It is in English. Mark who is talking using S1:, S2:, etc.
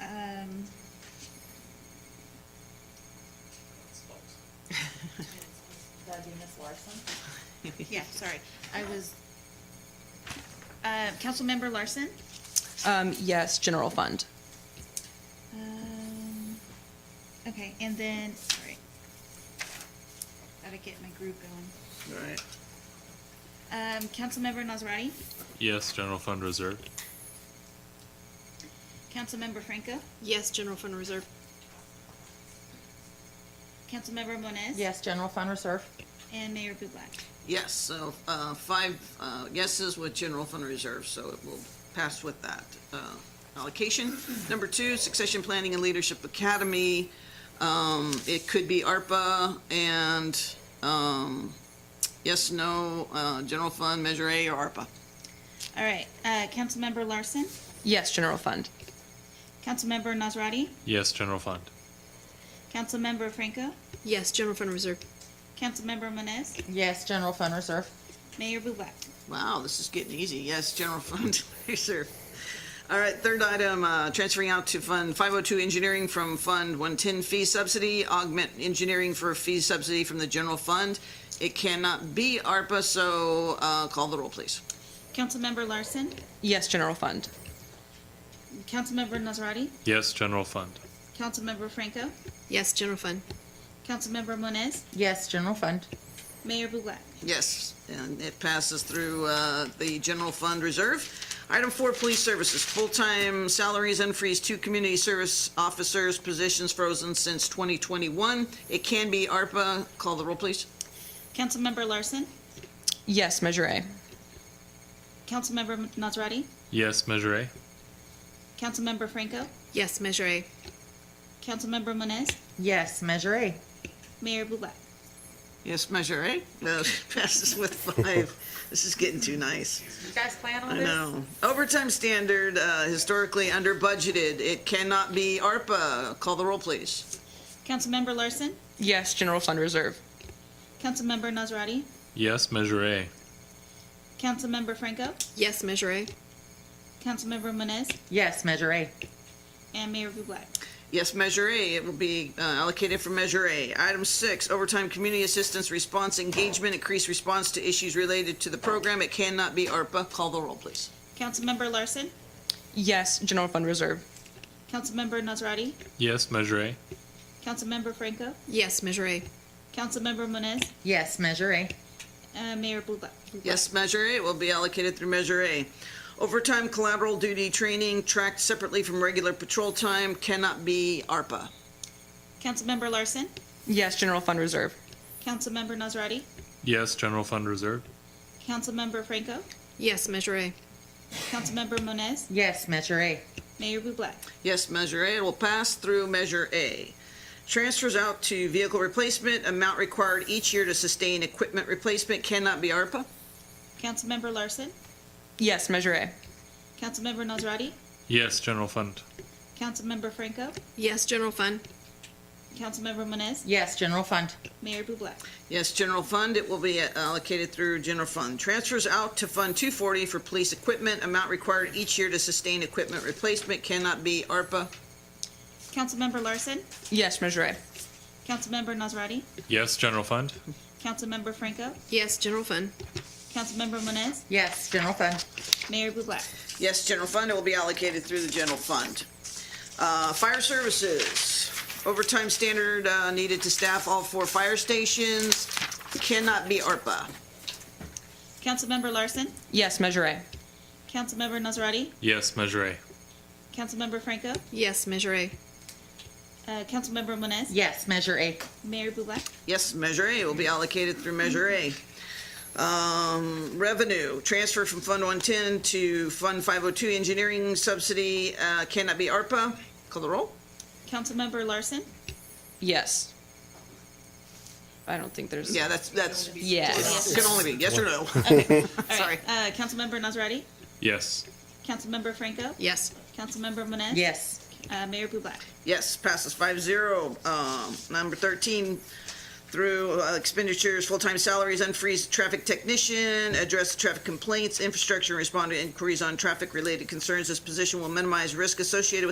S1: Um, yeah, sorry. I was, uh, Councilmember Larson?
S2: Um, yes, general fund.
S1: Um, Okay, and then, sorry. Gotta get my group going.
S3: Right.
S1: Um, Councilmember Nazrati?
S4: Yes, general fund reserve.
S1: Councilmember Franco?
S5: Yes, general fund reserve.
S1: Councilmember Moniz?
S6: Yes, general fund reserve.
S1: And Mayor Bublak?
S3: Yes, so uh, five uh, yeses with general fund reserve, so it will pass with that uh, allocation. Number two, Succession Planning and Leadership Academy. Um, It could be ARPA and um, yes, no, uh, general fund, Measure A or ARPA.
S1: All right, uh, Councilmember Larson?
S2: Yes, general fund.
S1: Councilmember Nazrati?
S4: Yes, general fund.
S1: Councilmember Franco?
S5: Yes, general fund reserve.
S1: Councilmember Moniz?
S6: Yes, general fund reserve.
S1: Mayor Bublak?
S3: Wow, this is getting easy. Yes, general fund reserve. All right, third item, uh, transferring out to Fund 502 Engineering from Fund 110 Fee Subsidy, augment engineering for fee subsidy from the general fund. It cannot be ARPA, so uh, call the roll, please.
S1: Councilmember Larson?
S2: Yes, general fund.
S1: Councilmember Nazrati?
S4: Yes, general fund.
S1: Councilmember Franco?
S5: Yes, general fund.
S1: Councilmember Moniz?
S6: Yes, general fund.
S1: Mayor Bublak?
S3: Yes, and it passes through uh, the general fund reserve. Item four, police services, full-time salaries unfreeze, two community service officers, positions frozen since 2021. It can be ARPA. Call the roll, please.
S1: Councilmember Larson?
S2: Yes, measure A.
S1: Councilmember Nazrati?
S4: Yes, measure A.
S1: Councilmember Franco?
S5: Yes, measure A.
S1: Councilmember Moniz?
S6: Yes, measure A.
S1: Mayor Bublak?
S3: Yes, Measure A. No, passes with five. This is getting too nice.
S6: You guys plan on
S3: I know. Overtime standard, uh, historically under budgeted. It cannot be ARPA. Call the roll, please.
S1: Councilmember Larson?
S2: Yes, general fund reserve.
S1: Councilmember Nazrati?
S4: Yes, measure A.
S1: Councilmember Franco?
S5: Yes, measure A.
S1: Councilmember Moniz?
S6: Yes, measure A.
S1: And Mayor Bublak?
S3: Yes, Measure A. It will be uh, allocated for Measure A. Item six, overtime community assistance response engagement, increased response to issues related to the program. It cannot be ARPA. Call the roll, please.
S1: Councilmember Larson?
S2: Yes, general fund reserve.
S1: Councilmember Nazrati?
S4: Yes, measure A.
S1: Councilmember Franco?
S5: Yes, measure A.
S1: Councilmember Moniz?
S6: Yes, measure A.
S1: Uh, Mayor Bublak?
S3: Yes, Measure A will be allocated through Measure A. Overtime collateral duty training tracked separately from regular patrol time cannot be ARPA.
S1: Councilmember Larson?
S2: Yes, general fund reserve.
S1: Councilmember Nazrati?
S4: Yes, general fund reserve.
S1: Councilmember Franco?
S5: Yes, measure A.
S1: Councilmember Moniz?
S6: Yes, measure A.
S1: Mayor Bublak?
S3: Yes, Measure A will pass through Measure A. Transfers out to vehicle replacement, amount required each year to sustain equipment replacement cannot be ARPA.
S1: Councilmember Larson?
S2: Yes, measure A.
S1: Councilmember Nazrati?
S4: Yes, general fund.
S1: Councilmember Franco?
S5: Yes, general fund.
S1: Councilmember Moniz?
S6: Yes, general fund.
S1: Mayor Bublak?
S3: Yes, general fund, it will be uh, allocated through general fund. Transfers out to Fund 240 for police equipment, amount required each year to sustain equipment replacement cannot be ARPA.
S1: Councilmember Larson?
S2: Yes, measure A.
S1: Councilmember Nazrati?
S4: Yes, general fund.
S1: Councilmember Franco?
S5: Yes, general fund.
S1: Councilmember Moniz?
S6: Yes, general fund.
S1: Mayor Bublak?
S3: Yes, general fund, it will be allocated through the general fund. Uh, Fire services, overtime standard uh, needed to staff all four fire stations cannot be ARPA.
S1: Councilmember Larson?
S2: Yes, measure A.
S1: Councilmember Nazrati?
S4: Yes, measure A.
S1: Councilmember Franco?
S5: Yes, measure A.
S1: Uh, Councilmember Moniz?
S6: Yes, measure A.
S1: Mayor Bublak?
S3: Yes, Measure A will be allocated through Measure A. Um, Revenue, transfer from Fund 110 to Fund 502 engineering subsidy uh, cannot be ARPA. Call the roll?
S1: Councilmember Larson?
S2: Yes. I don't think there's.
S3: Yeah, that's, that's,
S2: Yes.
S3: can only be yes or no.
S1: All
S3: Sorry.
S1: right. Uh, Councilmember Nazrati?
S4: Yes.
S1: Councilmember Franco?
S5: Yes.
S1: Councilmember Moniz?
S6: Yes,
S1: Uh, Mayor Bublak?
S3: Yes, passes five zero. Um, number thirteen, through uh, expenditures, full-time salaries, unfreeze traffic technician, address traffic complaints, infrastructure, and respond to inquiries on traffic-related concerns. This position will minimize risk associated with